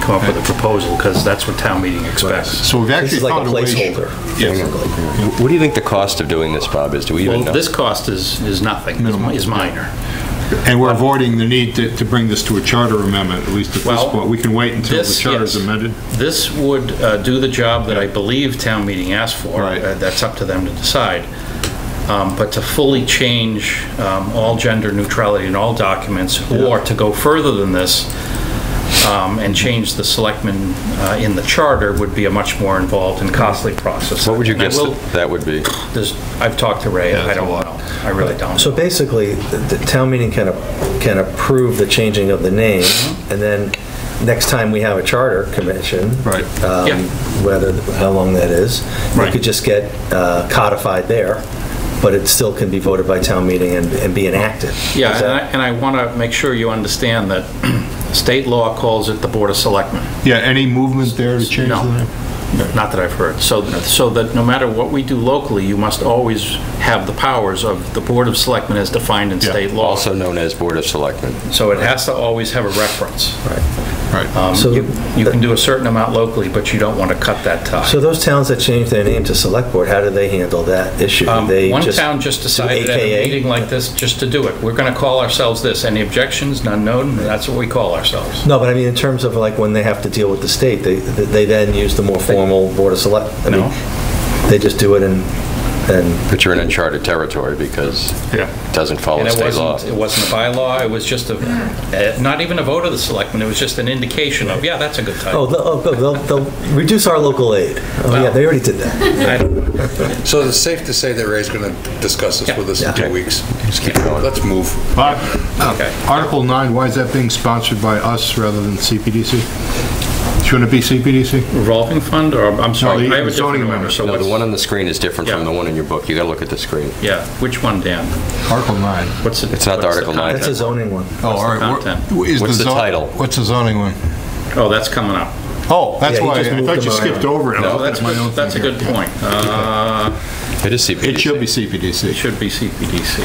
come up with a proposal, because that's what town meeting expects. So we've This actually is like found a a way. placeholder, Yes. basically. What do you think the cost of doing this, Bob, is? Do we even Well, know? this cost is, is nothing, is mi- is minor. And we're avoiding the need to, to bring this to a charter amendment, at least at this Well, point. We can wait until the This- charter's yes. amended. This would uh, do the job that I believe town meeting asked for. Right. Uh, That's up to them to decide. Um, But to fully change um, all gender neutrality in all documents, or to go further than this um, and change the selectmen uh, in the charter would be a much more involved and costly process. What would you And I guess will- that that would be? there's- I've talked to Ray, I that's don't a lot. know. I really don't. So basically, the the town meeting can, a- can approve the changing of the name, Mm-hmm. and then next time we have a charter commission. Right. um, Yeah. Whether, how long that is. We Right. could just get uh, codified there, but it still can be voted by town meeting and, and be enacted. Yeah, Is and I- that- and I want to make sure you understand that state law calls it the Board of Selectmen. Yeah, any movement there to change No. the name? Not that I've heard. So, so that no matter what we do locally, you must always have the powers of the Board of Selectmen as defined in Yeah. state law. Also known as Board of Selectmen. So it has to always have a reference. Right. Uh, Um, So- You you can do a certain amount locally, but you don't want to cut that tie. So those towns that change their name to select board, how do they handle that issue? Do Um, they One just town just do decided at a AKA? meeting like this, just to do it. We're going to call ourselves this. Any objections? None known? That's what we call ourselves. No, but I mean, in terms of like when they have to deal with the state, they, they then use the more formal Board of Select, I mean, No. they just do it and, and, But you're in uncharted territory because Yeah. it doesn't follow And it state law. wasn't, it wasn't a bylaw, it was just a, eh, not even a vote of the Selectmen, it was just an indication of, yeah, that's a good oh, title. they'll- oh, they'll, they'll reduce our local aid. Oh, yeah, they already did that. I don't- So it's safe to say that Ray's going to discuss this with us in Yeah. two weeks. Just keep going. Let's move. Bob, Okay. Article 9, why is that being sponsored by us rather than CPDC? Shouldn't it be CPDC? Revolving fund, or, I'm sorry, the I have a zoning different order, amendment. so No, the what's, one on the screen is different Yeah. from the one in your book. You gotta look at the screen. yeah, which one, Dan? Article 9. What's it? It's not the what's Article nine. That's a content? zoning one. Oh, all the right. we're- content? is What's the zo- title? What's the zoning one? Oh, that's coming up. Oh, that's Yeah, he why, just I moved thought them you skipped around. over it. I'm Oh, looking that's, at my own good- that's a thing here. good point. Uh, It is CPDC. It should be It CPDC. should be CPDC.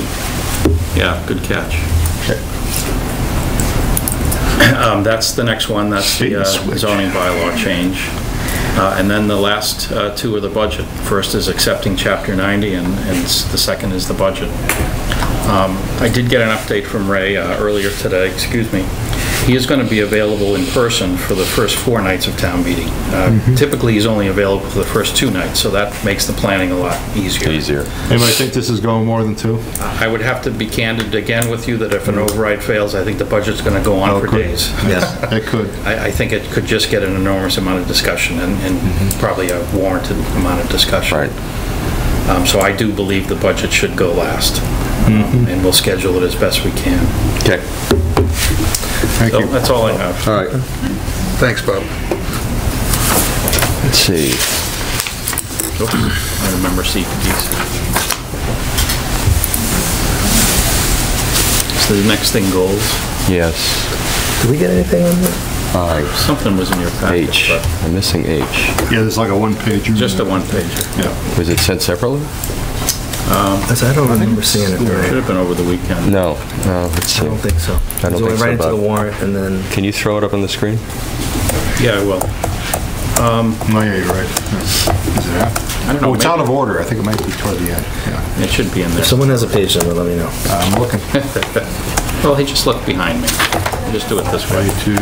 Yeah, good catch. Um, That's the next one, that's the uh, Jeez, which- zoning bylaw change. Uh, And then the last uh, two are the budget. First is accepting Chapter 90, and and s- the second is the budget. Um, I did get an update from Ray uh, earlier today, excuse me. He is going to be available in person for the first four nights of town meeting. Uh, Typically, he's only available for the first two nights, so that makes the planning a lot easier. Easier. Anybody think this is going more than two? I would have to be candid again with you that if an override fails, I think the budget's going to go on for Okay. days. Yes. Oh, It could. I, I think it could just get an enormous amount of discussion and, and Mm-hmm. probably a warranted amount of discussion. Right. Um, so I do believe the budget should go last. Mm-hmm. Um, And we'll schedule it as best we can. Okay. Thank So you. that's all I have. All right. Thanks, Bob. Let's see. I remember CPDC. So the next thing goals, Yes. Did we get anything on that? something was in your packet, H. but I'm missing H. Yeah, there's like a one-page. just a one pager. Yeah. Was it sent separately? That's- I don't remember seeing it, Should right? have been over the weekend. No. No, let's I see. don't think so. I don't So we think so, Right into the Bob. warrant and then, Can you throw it up on the screen? Yeah, well, No, Oh, yeah, you're right. Yeah. Is it I don't out? know, Oh, it's out maybe- of order. I think it might be toward the end. Yeah. it should be in there. if someone has a page number, let me know. I'm looking. Well, he just looked behind me. Just do it this way. Way to,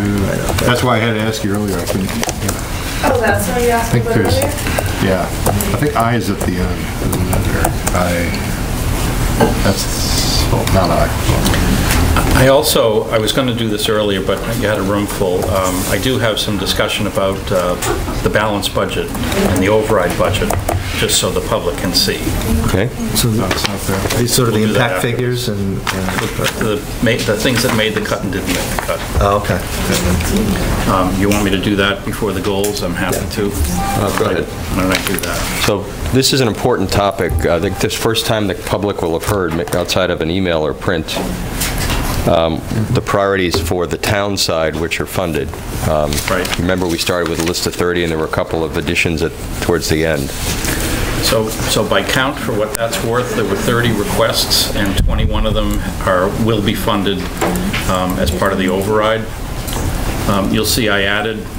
that's why I had to ask you earlier. I couldn't, yeah. Oh, that's what you I asked me think about there's, earlier? yeah. I think I is at the end. isn't it, or I, that's, oh, not I. I also, I was going to do this earlier, but you had a room full. Um, I do have some discussion about uh, the balanced budget and the override budget, just so the public can see. Okay. So No, it's not there. these sort of the We'll do that impact after. figures and, uh, The ma- the things that made the cut and didn't make the cut. oh, okay. Um, You want me to do that before the goals? I'm happy to. Uh, go ahead. Why don't I do that? So this is an important topic. I think this first time the public will have heard, ma- outside of an email or print, um, the priorities for the town side which are funded. Um, Right. Remember, we started with a list of 30, and there were a couple of additions at- towards the end. So, so by count, for what that's worth, there were 30 requests, and 21 of them are, will be funded um, as part of the override. Um, You'll see I added